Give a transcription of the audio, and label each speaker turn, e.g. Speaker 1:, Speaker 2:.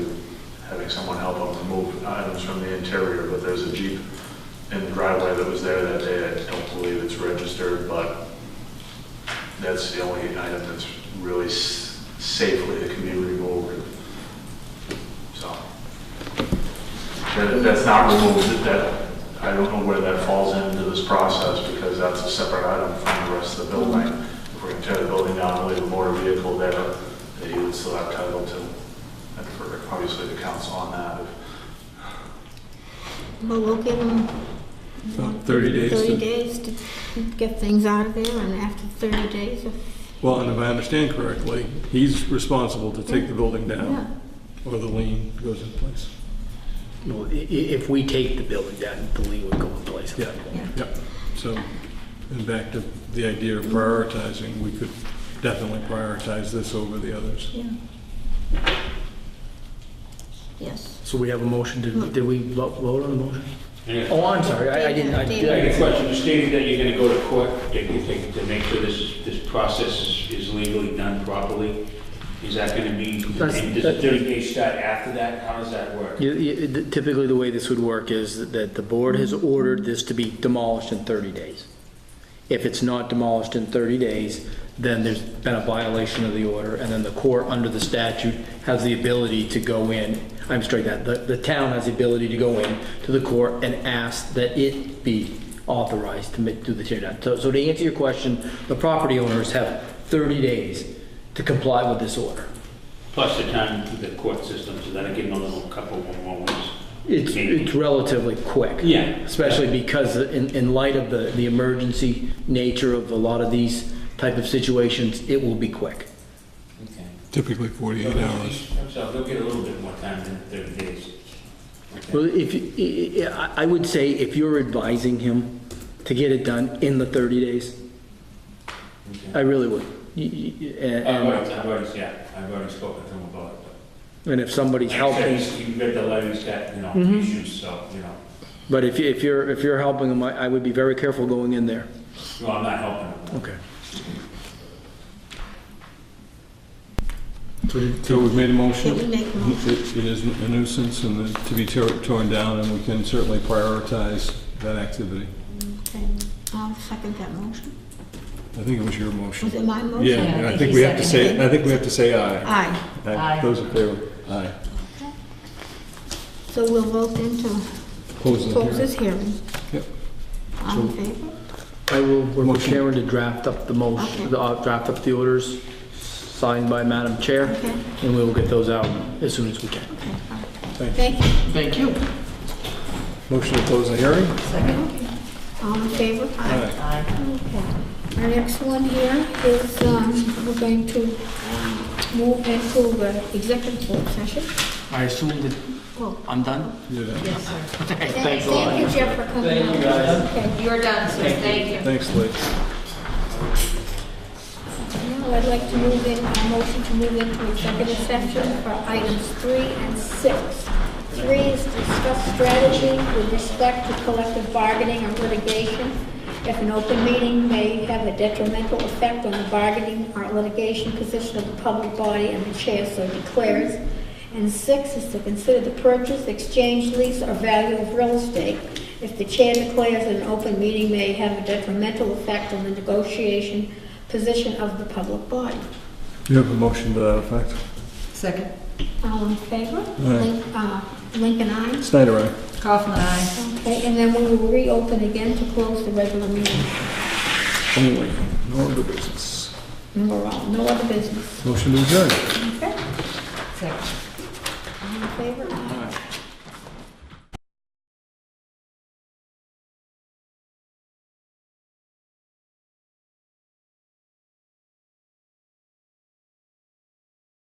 Speaker 1: someone help them remove items from the interior, but there's a Jeep in the driveway that was there that day. I don't believe it's registered, but that's the only item that's really s- safely that can be removed. So. That- That's not removed, that, I don't know where that falls into this process, because that's a separate item from the rest of the building. If we're gonna tear the building down and leave a motor vehicle there, that you would still have title to, and for, obviously, the council on that.
Speaker 2: Well, we'll give them
Speaker 3: About 30 days.
Speaker 2: 30
Speaker 3: to-
Speaker 2: days to get things out of there, and after 30 days, if,
Speaker 3: Well, and if I understand correctly, he's responsible to take the building
Speaker 2: yeah.
Speaker 3: down or the lien goes in place.
Speaker 4: Well, i- i- If we take the building down, the lien would go in place.
Speaker 3: Yeah, yep. So, and back to the idea of prioritizing, we could definitely prioritize this over the others.
Speaker 2: Yeah. Yes.
Speaker 4: So we have a motion, did, did we vo- vote on the motion?
Speaker 5: Yeah.
Speaker 4: Oh, I'm sorry, I I didn't, I
Speaker 5: I got a
Speaker 4: did.
Speaker 5: question, stating that you're gonna go to court, that you think, to make sure this, this process is- is legally done properly, is that gonna be,
Speaker 4: That's-
Speaker 5: and does the thirty day start after that, how does that work?
Speaker 4: You- you- Typically, the way this would work is that the board has ordered this to be demolished in 30 days. If it's not demolished in 30 days, then there's been a violation of the order, and then the court, under the statute, has the ability to go in, I'm straight that, the, the town has the ability to go in to the court and ask that it be authorized to make, do the tear down. So, so to answer your question, the property owners have 30 days to comply with this order.
Speaker 5: Plus the time through the court system, so that'll give them a little couple more weeks.
Speaker 4: It's, it's relatively quick.
Speaker 5: Yeah.
Speaker 4: Especially because in, in light of the, the emergency nature of a lot of these type of situations, it will be quick.
Speaker 5: Okay.
Speaker 3: Typically 48 hours.
Speaker 5: So they'll get a little bit more time than thirty days. Okay.
Speaker 4: Well, if, you- I, I- I would say if you're advising him to get it done in the 30 days, I
Speaker 5: Okay.
Speaker 4: really would. You- you-
Speaker 5: I've
Speaker 4: And,
Speaker 5: already,
Speaker 4: and-
Speaker 5: I've already, yeah, I've already spoken to them about it. but-
Speaker 4: and if somebody's
Speaker 5: Like I said,
Speaker 4: helping,
Speaker 5: he's- He read the letter, he's got, you know,
Speaker 4: Mhm.
Speaker 5: issues, so, you know,
Speaker 4: but if, you- if you're, if you're helping him, I, I would be very careful going in there.
Speaker 5: well, I'm not helping them.
Speaker 4: Okay.
Speaker 3: So we've made a
Speaker 2: Did we
Speaker 3: motion.
Speaker 2: make a motion?
Speaker 3: It it is a nuisance and it- to be tear- torn down, and we can certainly prioritize that activity.
Speaker 2: Okay. I'll second that motion.
Speaker 3: I think it was your motion.
Speaker 2: Was it my motion?
Speaker 3: Yeah, I think we have to say, I think we have to say aye.
Speaker 2: Aye.
Speaker 6: Aye.
Speaker 3: Those in favor? Aye.
Speaker 2: So we'll vote into
Speaker 3: Close
Speaker 2: close
Speaker 3: the hearing.
Speaker 2: this hearing.
Speaker 3: Yep.
Speaker 2: All in favor?
Speaker 4: I will work with
Speaker 3: Motion.
Speaker 4: Sharon to draft up the
Speaker 2: Okay.
Speaker 4: motion, the, uh, draft up the orders signed by Madam Chair,
Speaker 2: Okay.
Speaker 4: and we will get those out as soon as we can.
Speaker 2: Okay. all right.
Speaker 3: Thank
Speaker 2: Thank you.
Speaker 4: Thank you.
Speaker 3: Motion to close the hearing?
Speaker 2: Okay. All in favor?
Speaker 3: Aye.
Speaker 2: Okay. Our next one here is, um, we're going to um, move into the executive session.
Speaker 4: I assume that
Speaker 2: Oh,
Speaker 4: I'm done?
Speaker 3: You're done.
Speaker 6: Yes, sir.
Speaker 4: Thanks a
Speaker 2: Thank you,
Speaker 4: lot.
Speaker 2: Jeff, for coming out.
Speaker 4: Thank you, guys.
Speaker 2: Okay.
Speaker 6: You are done, sir. Thank you.
Speaker 3: Thanks, Lee.
Speaker 2: Now, I'd like to move in, a motion to move into executive session for items three and six. Three is discuss strategy with respect to collective bargaining or litigation. If an open meeting may have a detrimental effect on the bargaining or litigation position of the public body and the chair so declares. And six is to consider the purchase, exchange, lease, or value of real estate. If the chair declares that an open meeting may have a detrimental effect on the negotiation position of the public body.
Speaker 3: You have a motion to that effect?
Speaker 6: Second.
Speaker 2: All in favor?
Speaker 3: Aye.
Speaker 2: Link- uh, Lincoln, aye.
Speaker 3: Snyder, aye.
Speaker 6: Kaufman, aye.
Speaker 2: Okay, and then we will reopen again to close the regular meeting.
Speaker 3: Only, no other business.
Speaker 2: And we're all, no other business.
Speaker 3: Motion to adjourn.
Speaker 2: Okay?
Speaker 6: Second.
Speaker 2: All in favor? Aye.